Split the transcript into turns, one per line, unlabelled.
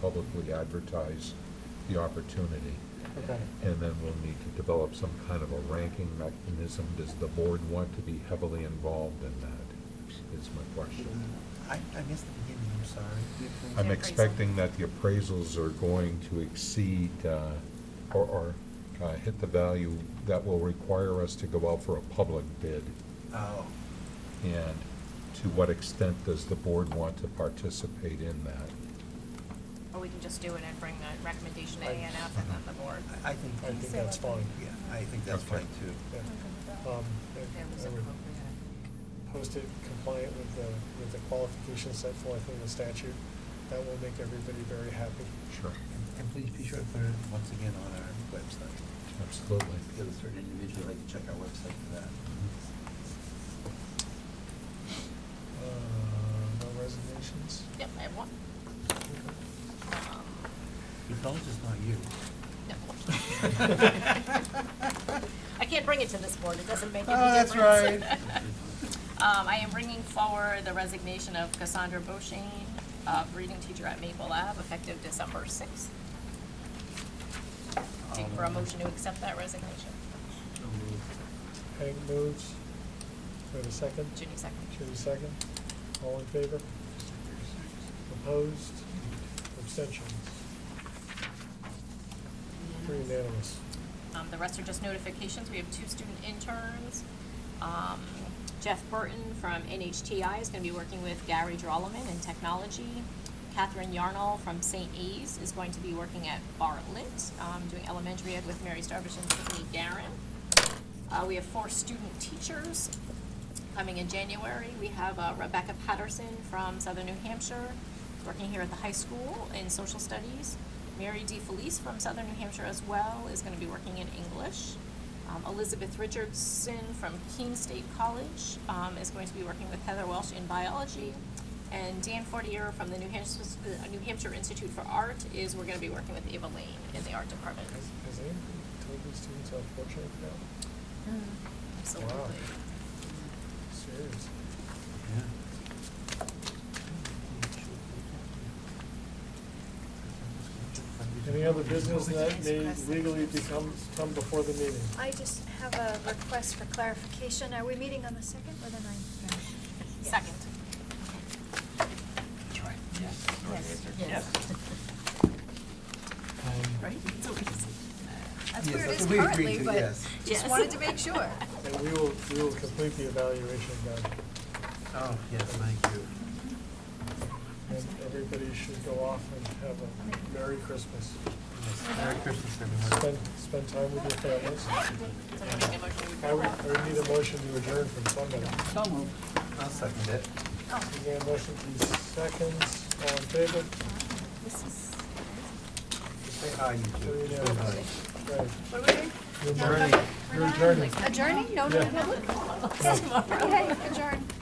publicly advertise the opportunity.
Okay.
And then we'll need to develop some kind of a ranking mechanism. Does the board want to be heavily involved in that, is my question.
I, I missed the beginning, I'm sorry.
I'm
Appraisal.
expecting that the appraisals are going to exceed uh, or, or uh, hit the value that will require us to go out for a public bid.
um,
Oh,
And to what extent does the board want to participate in that?
Or we can just do it and bring the recommendation to A
Right.
and F and then the board.
I- I think,
I think that's fine.
yeah, I think that's
Okay.
fine too.
Yeah. Um, I- I would Post it compliant with the, with the qualifications set forth in the statute. That will make everybody very happy.
Sure,
And- And please be sure to put it once again on our website.
absolutely.
Because a certain individual, like to check our website for that.
Uh, No resignations?
Yep, I have one. Um,
Your knowledge is not you.
no.
Um,
I can't bring it to this board, it doesn't make any
Oh, that's
difference.
right.
Um, I am bringing forward the resignation of Cassandra Bochane, uh, reading teacher at Maple Lab, effective December sixth. Take for a
Um,
motion to accept that resignation.
So moved.
Hank moves. Wait a second.
Ginny
Judy
second.
second. All in favor? Opposed? Abstentions? Three unanimous.
Um, the rest are just notifications. We have two student interns. Um, Jeff Burton from NHTI is gonna be working with Gary Drolleman in technology. Catherine Yarnall from St. A's is going to be working at Bartlett, um, doing elementary ed with Mary Starbush and Tiffany Garin. Uh, we have four student teachers coming in January. We have uh, Rebecca Patterson from Southern New Hampshire, working here at the high school in social studies. Mary D. Felice from Southern New Hampshire as well is going to be working in English. Um, Elizabeth Richardson from Keene State College um, is going to be working with Heather Welsh in biology. And Dan Fortier from the New Hampshire, uh, New Hampshire Institute for Art is, we're going to be working with Ava Lane in the art department.
Has, has anybody told these students how fortunate they are?
Absolutely.
Seriously?
Yeah.
Any other business that may legally become, come before the meeting?
I just have a request for clarification. Are we meeting on the second or the ninth?
Second.
Um,
That's
Yes,
where it
that's
is
what we agreed
currently,
to,
but
yes.
just
Yes.
wanted to make sure.
And we will, we will complete the evaluation guide.
Oh, yes, thank you.
And everybody should go off and have a Merry Christmas.
Yes, Merry Christmas,
Spend,
everyone.
spend time with your families.
Somebody make a motion to
I would,
approve.
I would need a motion to adjourn from somebody.
So moved. I'll second it.
Again, motion to seconds, all in favor?
Say hi, you
Three
two.
unanimous.
Hi.
Right.
What are we doing?
You're adjourning. You're adjourning.
Adjourning? No, no, no. Okay, adjourn.